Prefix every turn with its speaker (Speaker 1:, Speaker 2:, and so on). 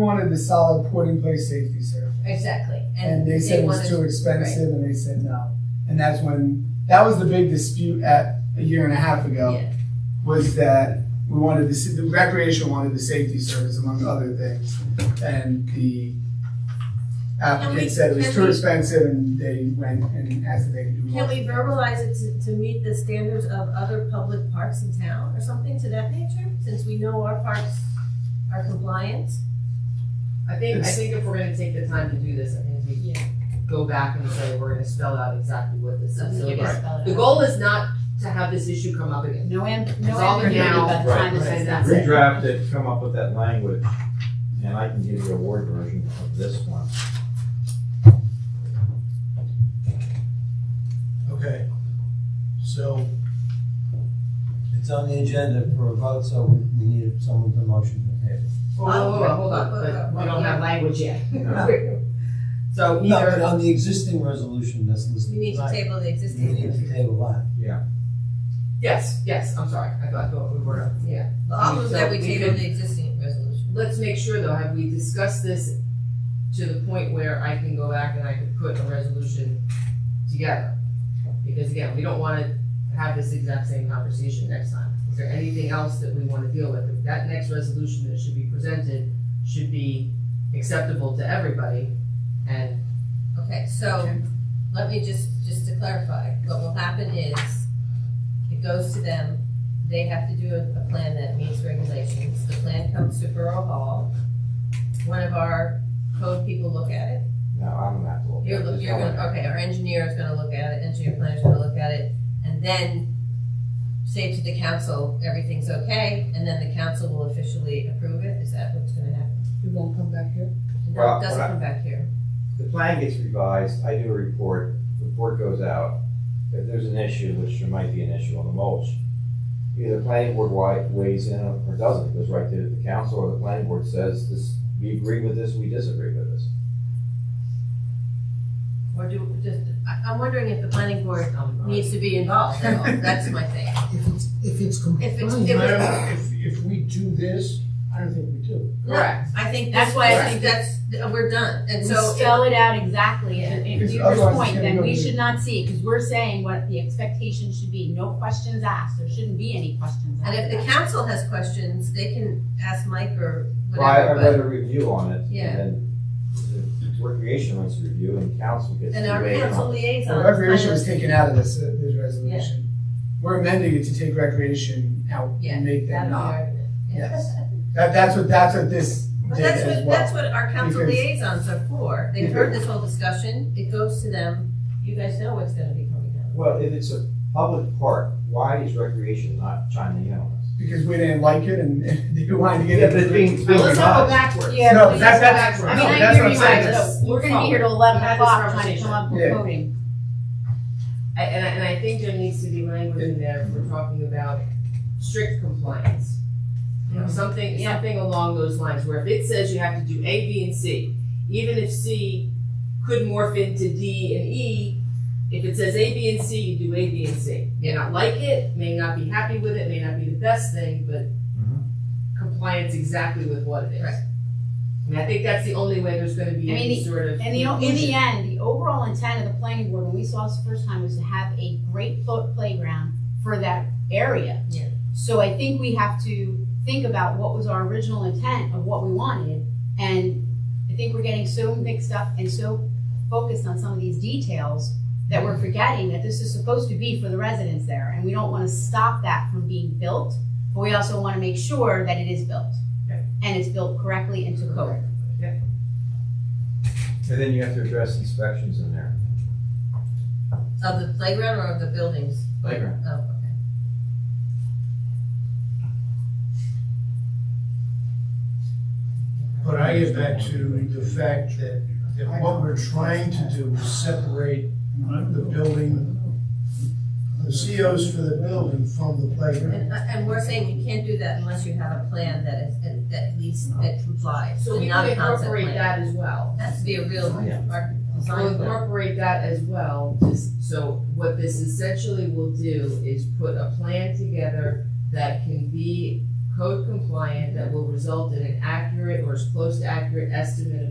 Speaker 1: wanted the solid put in place safety surface.
Speaker 2: Exactly.
Speaker 1: And they said it was
Speaker 2: wanted-
Speaker 1: too expensive and they said no. And that's when, that was the big dispute at a year and a half ago,
Speaker 2: Yeah.
Speaker 1: was that we wanted the, sa- the recreation wanted the safety service among other things. And the
Speaker 3: Can we-
Speaker 1: applicant said it was
Speaker 3: can
Speaker 1: too
Speaker 3: we-
Speaker 1: expensive and they went and asked if they could do more.
Speaker 3: Can we verbalize it to, to meet the standards of other public parks in town or something to that nature? Since we know our parks are compliant.
Speaker 4: I think, I
Speaker 1: It's-
Speaker 4: think if we're gonna take the time to do this, I think we
Speaker 3: Yeah.
Speaker 4: go back and say, we're gonna spell out exactly what this is. So
Speaker 2: Something you
Speaker 4: again,
Speaker 2: can spell it
Speaker 4: the
Speaker 2: out.
Speaker 4: goal is not to have this issue come up again.
Speaker 2: No am, no
Speaker 4: Resolve it
Speaker 2: ambiguity,
Speaker 4: now.
Speaker 2: but the
Speaker 4: Right.
Speaker 2: time is
Speaker 4: Right.
Speaker 2: that's it.
Speaker 5: Redraft it, come up with that language, and I can give you a word version of this one.
Speaker 6: Okay, so it's on the agenda for a vote, so we we need someone to motion to table.
Speaker 4: Whoa, whoa, whoa, hold on, but we don't have language yet. So
Speaker 6: No, but
Speaker 4: either,
Speaker 6: on the existing resolution that's listed.
Speaker 3: We need to
Speaker 6: tonight,
Speaker 3: table the
Speaker 6: We need
Speaker 3: existing.
Speaker 6: to table that.
Speaker 4: yes, yes, I'm sorry, I thought, I thought we were, yeah.
Speaker 3: I'll move that we
Speaker 4: So we
Speaker 3: table the existing resolution.
Speaker 4: Let's make sure though, have we discussed this to the point where I can go back and I can put a resolution together? Because again, we don't wanna have this exact same conversation next time. Is there anything else that we wanna deal with? If That next resolution that should be presented should be acceptable to everybody and,
Speaker 3: Okay, so let me just, just to clarify, what will happen is it goes to them, they have to do a, a plan that meets regulations, the plan comes to Borough Hall. One of our code people look at it,
Speaker 5: No, I'm not. looking.
Speaker 3: you're, look- you're gonna, okay, our engineer is gonna look at it, engineer planner's gonna look at it, and then say to the council, everything's okay, and then the council will officially approve it, is that what's gonna happen?
Speaker 2: It won't come back here?
Speaker 3: No,
Speaker 5: Well,
Speaker 3: it doesn't
Speaker 5: what I-
Speaker 3: come back here.
Speaker 5: The plan gets revised, I do a report, report goes out. If there's an issue, which there might be an issue on the mulch, either the planning board wi- weighs in or doesn't, it goes right to the council or the planning board says this, we agree with this, we disagree with this.
Speaker 3: Or do, just, I, I'm wondering if the planning board
Speaker 4: um,
Speaker 3: needs to be involved at all, that's my thing.
Speaker 7: If it's, if it's compliant,
Speaker 3: If it's- if
Speaker 7: I
Speaker 3: it's-
Speaker 7: don't- if, if we do this, I don't think we do.
Speaker 4: correct.
Speaker 3: I think
Speaker 2: That's
Speaker 3: that's
Speaker 2: why
Speaker 3: why
Speaker 2: I
Speaker 3: I think that's, we're done, and
Speaker 2: We
Speaker 3: so.
Speaker 2: spell it out exactly, and and to
Speaker 1: Because
Speaker 2: your
Speaker 1: otherwise it's
Speaker 2: point,
Speaker 1: gonna
Speaker 2: then
Speaker 1: go
Speaker 2: we
Speaker 1: to-
Speaker 2: should not see, because we're saying what the expectation should be, no questions asked, there shouldn't be any questions asked.
Speaker 3: And if the council has questions, they can ask Mike or
Speaker 5: Well, I, I read
Speaker 3: whatever,
Speaker 5: a review on it,
Speaker 3: Yeah.
Speaker 5: and then the recreation wants to review, and council
Speaker 3: but,
Speaker 5: gets
Speaker 3: and
Speaker 5: to
Speaker 3: our
Speaker 5: weigh in on
Speaker 3: council
Speaker 5: it.
Speaker 3: liaison.
Speaker 1: Well,
Speaker 3: is kind
Speaker 1: Recreation
Speaker 3: of-
Speaker 1: was taken out of this, uh, this resolution. We're amending it to take recreation out
Speaker 3: Yeah,
Speaker 1: and make them
Speaker 3: That'd be our
Speaker 1: not.
Speaker 3: argument.
Speaker 1: Yes. That, that's what, that's what this
Speaker 3: But
Speaker 1: did
Speaker 3: that's
Speaker 1: as
Speaker 3: what, that's
Speaker 1: well.
Speaker 3: what our council
Speaker 1: Because-
Speaker 3: liaisons are for, they've heard this whole discussion, it goes to them, you guys know what's gonna be coming down.
Speaker 5: Well, if it's a public park, why is recreation not chiming in on this?
Speaker 1: Because we didn't like it and they wanted to get it.
Speaker 4: Well, let's not go backwards.
Speaker 2: Yeah,
Speaker 1: No,
Speaker 2: please
Speaker 1: that's-
Speaker 2: go
Speaker 1: that's-
Speaker 2: backwards. I mean,
Speaker 1: no,
Speaker 2: I
Speaker 1: that's
Speaker 2: hear
Speaker 1: what
Speaker 2: you,
Speaker 1: I'm saying,
Speaker 2: Mike,
Speaker 4: let's
Speaker 2: but we're
Speaker 4: move
Speaker 2: gonna be here till
Speaker 4: We
Speaker 2: eleven
Speaker 4: had this
Speaker 2: o'clock trying to
Speaker 4: conversation.
Speaker 2: come up with
Speaker 1: Yeah.
Speaker 2: voting.
Speaker 4: I, and I, and I think there needs to be language in there, if we're talking about strict compliance. You know, something,
Speaker 2: Yeah.
Speaker 4: something along those lines, where if it says you have to do A, B, and C, even if C could morph into D and E, if it says A, B, and C, you do A, B, and C. May not like it, may not be happy with it, may not be the best thing, but compliance exactly with what it is.
Speaker 3: Right.
Speaker 4: And I think that's the only way there's gonna be
Speaker 2: I mean,
Speaker 4: any sort of.
Speaker 2: And the, in
Speaker 4: inclusion.
Speaker 2: the end, the overall intent of the planning board, when we saw this the first time, was to have a great foot playground for that area.
Speaker 3: Yeah.
Speaker 2: So I think we have to think about what was our original intent of what we wanted. And I think we're getting so mixed up and so focused on some of these details that we're forgetting that this is supposed to be for the residents there. And we don't wanna stop that from being built, but we also wanna make sure that it is built.
Speaker 4: Okay.
Speaker 2: And it's built correctly into code.
Speaker 5: And then you have to address inspections in there.
Speaker 3: Of the playground or of the buildings?
Speaker 5: Playground.
Speaker 3: Oh, okay.
Speaker 7: But I get back to the fact that, that what we're trying to do is separate the building, the COs for the building from the playground.
Speaker 3: And, uh, and we're saying you can't do that unless you have a plan that is, that at least, that complies,
Speaker 4: So
Speaker 3: and
Speaker 4: we
Speaker 3: not
Speaker 4: can
Speaker 3: a concept
Speaker 4: incorporate
Speaker 3: plan.
Speaker 4: that as well.
Speaker 3: Has to be a real
Speaker 5: Yeah.
Speaker 3: arch-
Speaker 4: I'll
Speaker 3: design plan.
Speaker 4: incorporate that as well, just, so what this essentially will do is put a plan together that can be code compliant that will result in an accurate or as close to accurate estimate of